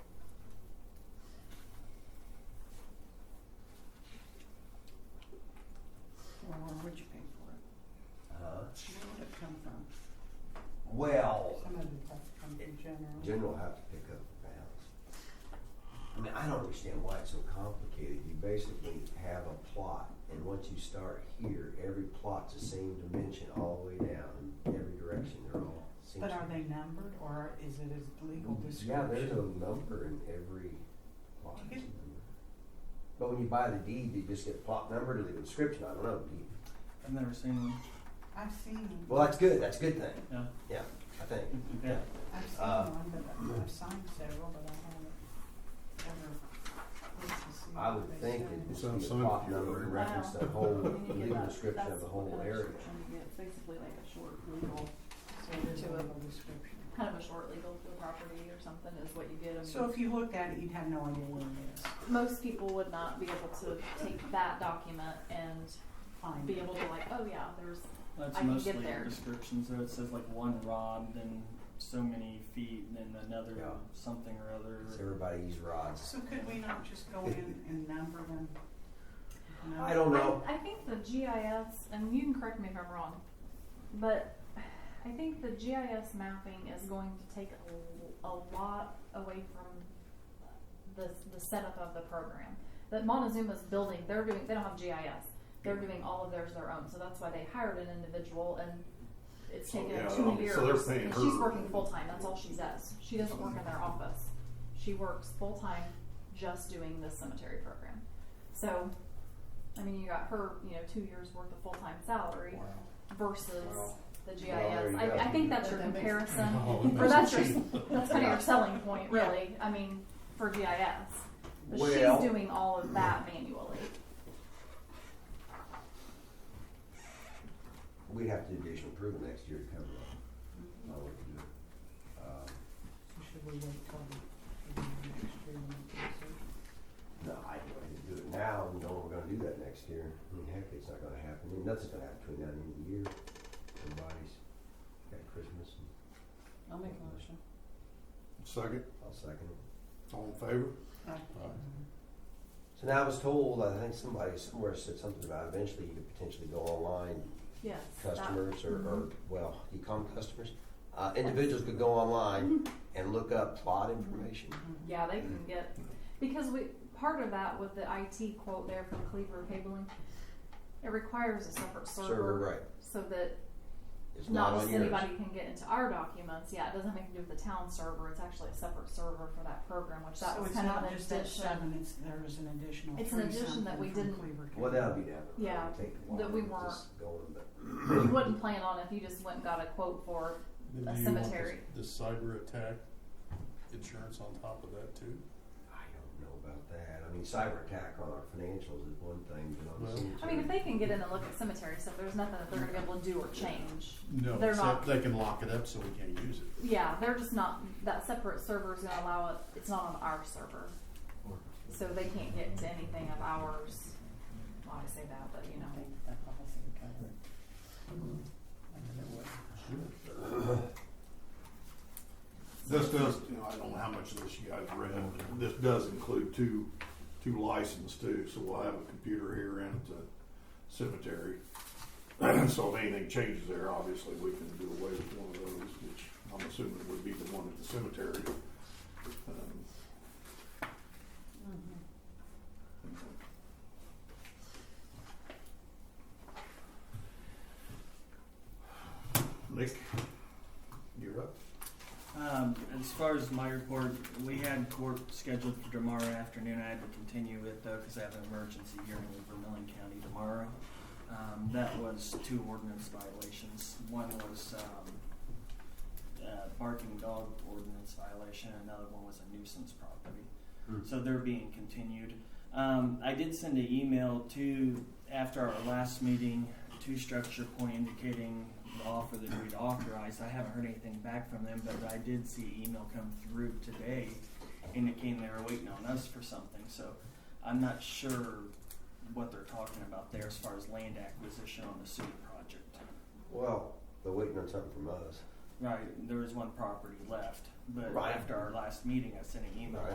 Uh, I don't understand why it's so complicated. You basically have a plot, and once you start here, every plot's the same dimension all the way down, in every direction, they're all. seems But to are be- they numbered or is it a legal Yeah, description? there's a number in every plot. You could- But when you buy the deed, you just get plot number to the description, I don't know, deed. I've never seen one. I've seen, I've Well, that's good, that's a good thing, Yeah. yeah, I think. Yeah. seen uh, one, but I've signed several, but I haven't ever looked to see. I what would they think said. it So I'm would be a sorry plot if you number were- and reference the Wow. whole And you get legal that- description of that's the whole what a area. description is. It's basically like a short legal, So it is a to a- legal description. kind of a short legal to a property or something is what you get. And So if you looked at it, you'd have no idea what it is. most people would not be able to take that document and Fine. be able to like, oh yeah, there's I That's can get mostly there. descriptions, though. It says like one rod, then so many feet, and then another Yeah. something or other. It's everybody's rods. So could we not just go in and number them? No? I don't know. I, I think the GIS, and you can correct me if I'm wrong, but I think the GIS mapping is going to take a, l- a lot away from the, the setup of the program. That Montezuma's building, they're doing, they don't have GIS. They're doing all of theirs their own, so that's why they hired an individual and it's So, taken yeah, two um, years. so they're paying and she's her. working full time. That's all she does. She doesn't work in their office. She works full time, just doing this cemetery program. So, I mean, you got her, you know, two years worth of full time salary versus Wow. the GIS. Well, there you go. I, I think that's your That makes- comparison, Oh, that or makes that's it your cheap. that's kind of Yeah. your selling point, really. I mean, for GIS, but Well- she's doing all of that manually. We'd have to do additional approval next year to cover that. I would do it. Um, So Should we wait till the next year and do it? No, I do it. do it now, and know we're gonna do that next year. I mean, heck, it's not gonna happen. I mean, Nothing's gonna happen between now and the end of the year. Everybody's got Christmas, and I'll make a motion. Second, I'll second it. all in favor? So now I was told, I think somebody somewhere said something about eventually you could potentially go online Yes. that- customers or, Mm-hmm. or well, e-com customers, uh, individuals could go online Mm-hmm. and look up plot information. Yeah, they can get because we part of that with the IT quote there from Cleaver Cabling, it requires a separate server, Server, right? so that It's not not, on just yours. anybody can get into our documents. Yeah, it doesn't have anything to do with the town server. It's actually a separate server for that program, which that So was it's kind of not an just that addition seven, it's, there was an additional It's an three addition that something we from didn't- Cleaver County. Well, that'll be down the road. Yeah, It'll take a while. that we It's weren't- just Going, but you wouldn't plan on if you just went and got a quote for. Then A do you want cemetery. This this cyber attack insurance on top of that too? I don't know about that. I mean, cyber attack on our financials is one thing, but on the Well- I mean, if cemetery. they can get in and look at cemetery stuff, there's nothing that they're going to be able to do or change. No, They're except not- they can lock it up so we can't use it. Yeah, they're just not that separate server is going to allow it. It's not on our server. So they can't get to anything of ours. Well, I say that, but you know. Mm-hmm. I think that policy would cover it. I don't know what- This does, you know, I don't know how much of this you guys read, but this does include two, two licenses too, so we'll have a computer here and at the cemetery. So if anything changes there, obviously, we can do away with one of those, which I'm assuming would be the one at the cemetery. Um, Mm-hmm. Nick, you're up. Um, as far as my report, we had court scheduled for tomorrow afternoon. I had to continue it though because I have an emergency hearing with Vermillion County tomorrow. Um, that was two ordinance violations. One was um, uh, barking dog ordinance violation, and another one was a nuisance property. Hmm. So they're being continued. Um, I did send an email to after our last meeting to Structure Point indicating the offer that we'd authorized. I haven't heard anything back from them, but I did see email come through today indicating they were waiting on us for something. So I'm not sure what they're talking about there as far as land acquisition on the sewer project. Well, they're waiting on something from us. Right, there was one property left, but Right. after our last meeting, I sent an email Right.